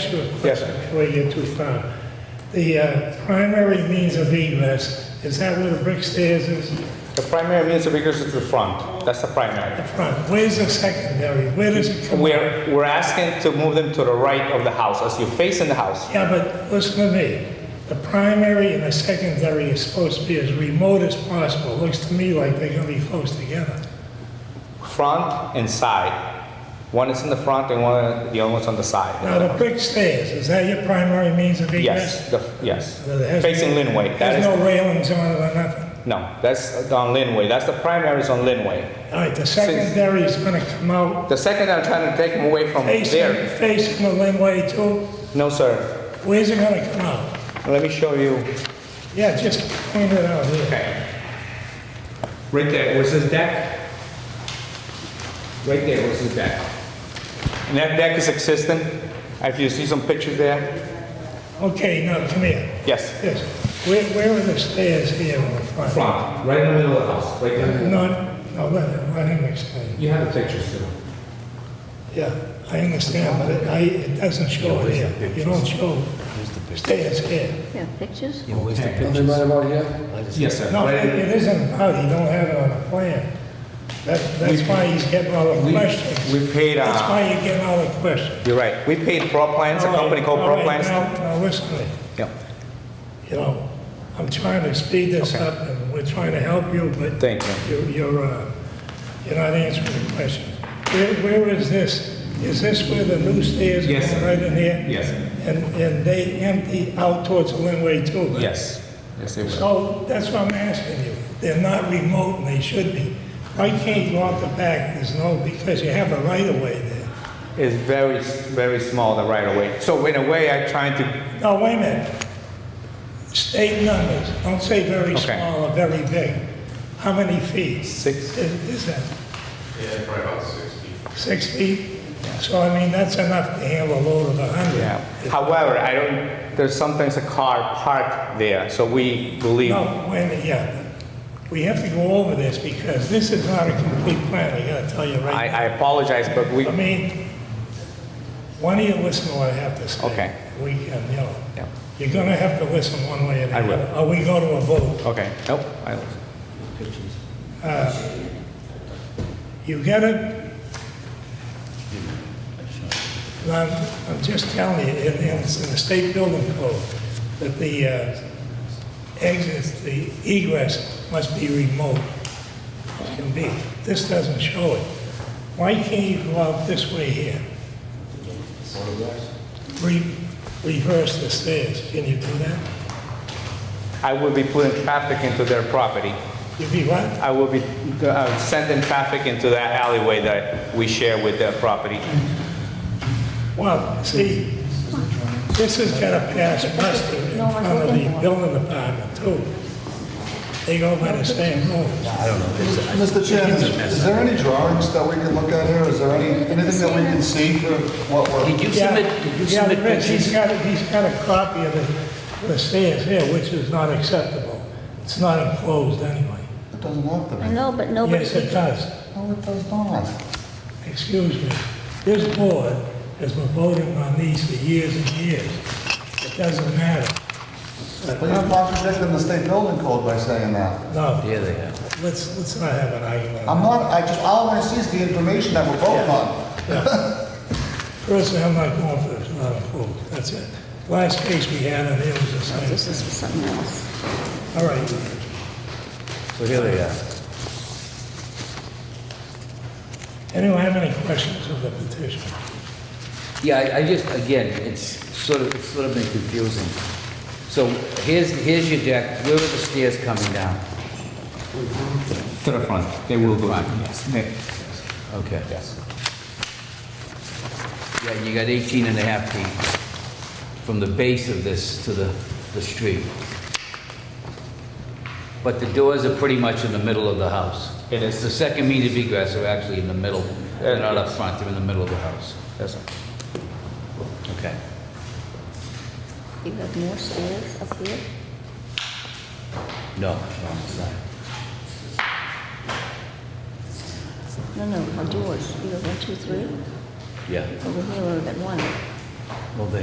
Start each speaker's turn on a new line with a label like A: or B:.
A: ask you a
B: Yes,
A: question
B: sir.
A: before you get too far. The uh, primary means of egress, is that where the brick stairs is,
B: The primary means of egress is the front, that's the primary.
A: the front? Where's the secondary? Where does it come?
B: We're, we're asking to move them to the right of the house, as you're facing the house.
A: Yeah, but listen to me. The primary and the secondary is supposed to be as remote as possible. Looks to me like they're gonna be close together.
B: Front and side. One is in the front and one, the other one's on the
A: Now,
B: side.
A: the brick stairs, is that your primary means of egress?
B: Yes, the, yes.
A: Now, there has-
B: Facing Linway, that
A: There's
B: is,
A: no railings on it or nothing?
B: no, that's on Linway, that's the primary is on Linway.
A: All right, the secondary is gonna come out
B: The second, I'm trying to take them away from
A: facing,
B: there.
A: facing the laneway too.
B: No, sir,
A: Where's it gonna come out?
B: let me show you.
A: Yeah, just point it out here.
B: Okay. Right there was his deck. Right there was his deck. And that deck is existing. If you see some pictures there.
A: Okay, now come here.
B: Yes.
A: Yes, where, where are the stairs here in the front?
B: Front, right in the middle of the house, right there.
A: No, no, let him, let him explain.
B: You have the pictures too.
A: Yeah, I understand, but it, I, it doesn't show it here. You don't show stairs here.
C: Yeah, pictures?
D: Yeah, where's the
E: Something right
D: pictures?
E: about here?
D: I just-
B: Yes, sir.
A: No,
B: Right
A: it
B: in-
A: it isn't out, you don't have it on the plan. That, that's why he's getting all the
B: We-
A: questions.
B: We paid,
A: That's
B: uh,
A: why you're getting all the questions.
B: you're right. We paid Pro Plans, a company called
A: All
B: Pro
A: right,
B: Plans.
A: Now, now listen to me.
B: Yeah.
A: you know, I'm trying to speed this up, and we're trying to help you, but
B: Thank you.
A: you- you're, uh, you're not answering the question. Where, where is this? Is this where the new stairs
B: Yes,
A: are
B: sir.
A: right in here?
B: Yes.
A: And, and they empty out towards the Linway too? right?
B: Yes. Yes, they will.
A: So that's what I'm asking you. They're not remote, and they should be. Why can't you go out the back? There's no, because you have a right-of-way there.
B: It's very, s- very small, the right of way. So in a way, I'm trying to,
A: No, wait a minute. State numbers, don't say very
B: Okay.
A: small or very big. How many feet?
B: Six.
A: Is is that
F: Yeah, probably about six feet.
A: six feet? So I mean, that's enough to handle a load of a
B: yeah.
A: hundred.
B: However, I don't, there's sometimes a car parked there, so we believe
A: No, wait a minute, yeah. We have to go over this because this is not a complete plan, I gotta tell you
B: I,
A: right
B: I apologize, but we,
A: now. I mean, why don't you listen to what I have to say?
B: Okay.
A: We can, you know,
B: Yeah.
A: you're gonna have to listen one way or the
B: I
A: other.
B: will.
A: Or we go to a vote.
B: okay, nope. I-
A: You get it? And I'm, I'm just telling you, and and it's in the state building code, that the uh, exits, the egress must be remote. It Can be. This doesn't show it. Why can't you go out this way here? Re- Reverse the stairs. Can you do that?
B: I will be putting traffic into their property.
A: You'd be what?
B: I will be uh, sending traffic into that alleyway that we share with their property.
A: Well, see, this has got to pass muster in front of the building department too. They go by the same rules.
E: Mr. Chairman, is there any drawings that we can look at here? Is there any, anything that we can see for what we're?
D: Did you
A: Yeah,
D: submit, did you
A: yeah,
D: submit
A: Rich, He's
D: pictures?
A: got, a- he's got a copy of the, the stairs here, which is not acceptable. It's not enclosed anyway.
E: It doesn't have to
C: I
E: be.
C: know, but nobody,
A: Yes, it does.
E: No, it does not.
A: Excuse me. This board has been voting on these for years and years. It doesn't matter.
E: But you're contradicting the state building code by saying that.
A: No,
D: Yeah, they have.
A: let's, let's not have an argument.
E: I'm not, I just, all I want to see is the information that we're voting on.
A: Personally, I'm not going for it, not approved, that's it. Last case we had, and it was the same
C: this is
A: thing.
C: for something else.
A: All right,
D: So here they are.
A: anyone have any questions of the petition?
D: Yeah, I- I just, again, it's sort of, it's sort of been confusing. So here's, here's your deck, where are the stairs coming down?
B: To the front, they will go back.
A: Mm-hmm.
D: Okay.
B: Yes.
D: Yeah, you got 18 and a half feet from the base of this to the, the street. But the doors are pretty much in the middle of the house.
B: It is.
D: The second means of egress are actually in the middle, they're not up front, they're in the middle of the house.
B: Yes, sir.
D: Okay.
C: You got more stairs up here?
D: No, wrong side.
C: No, no, our doors. You got one, two, three?
D: Yeah,
C: Over here, we've got one.
D: well, they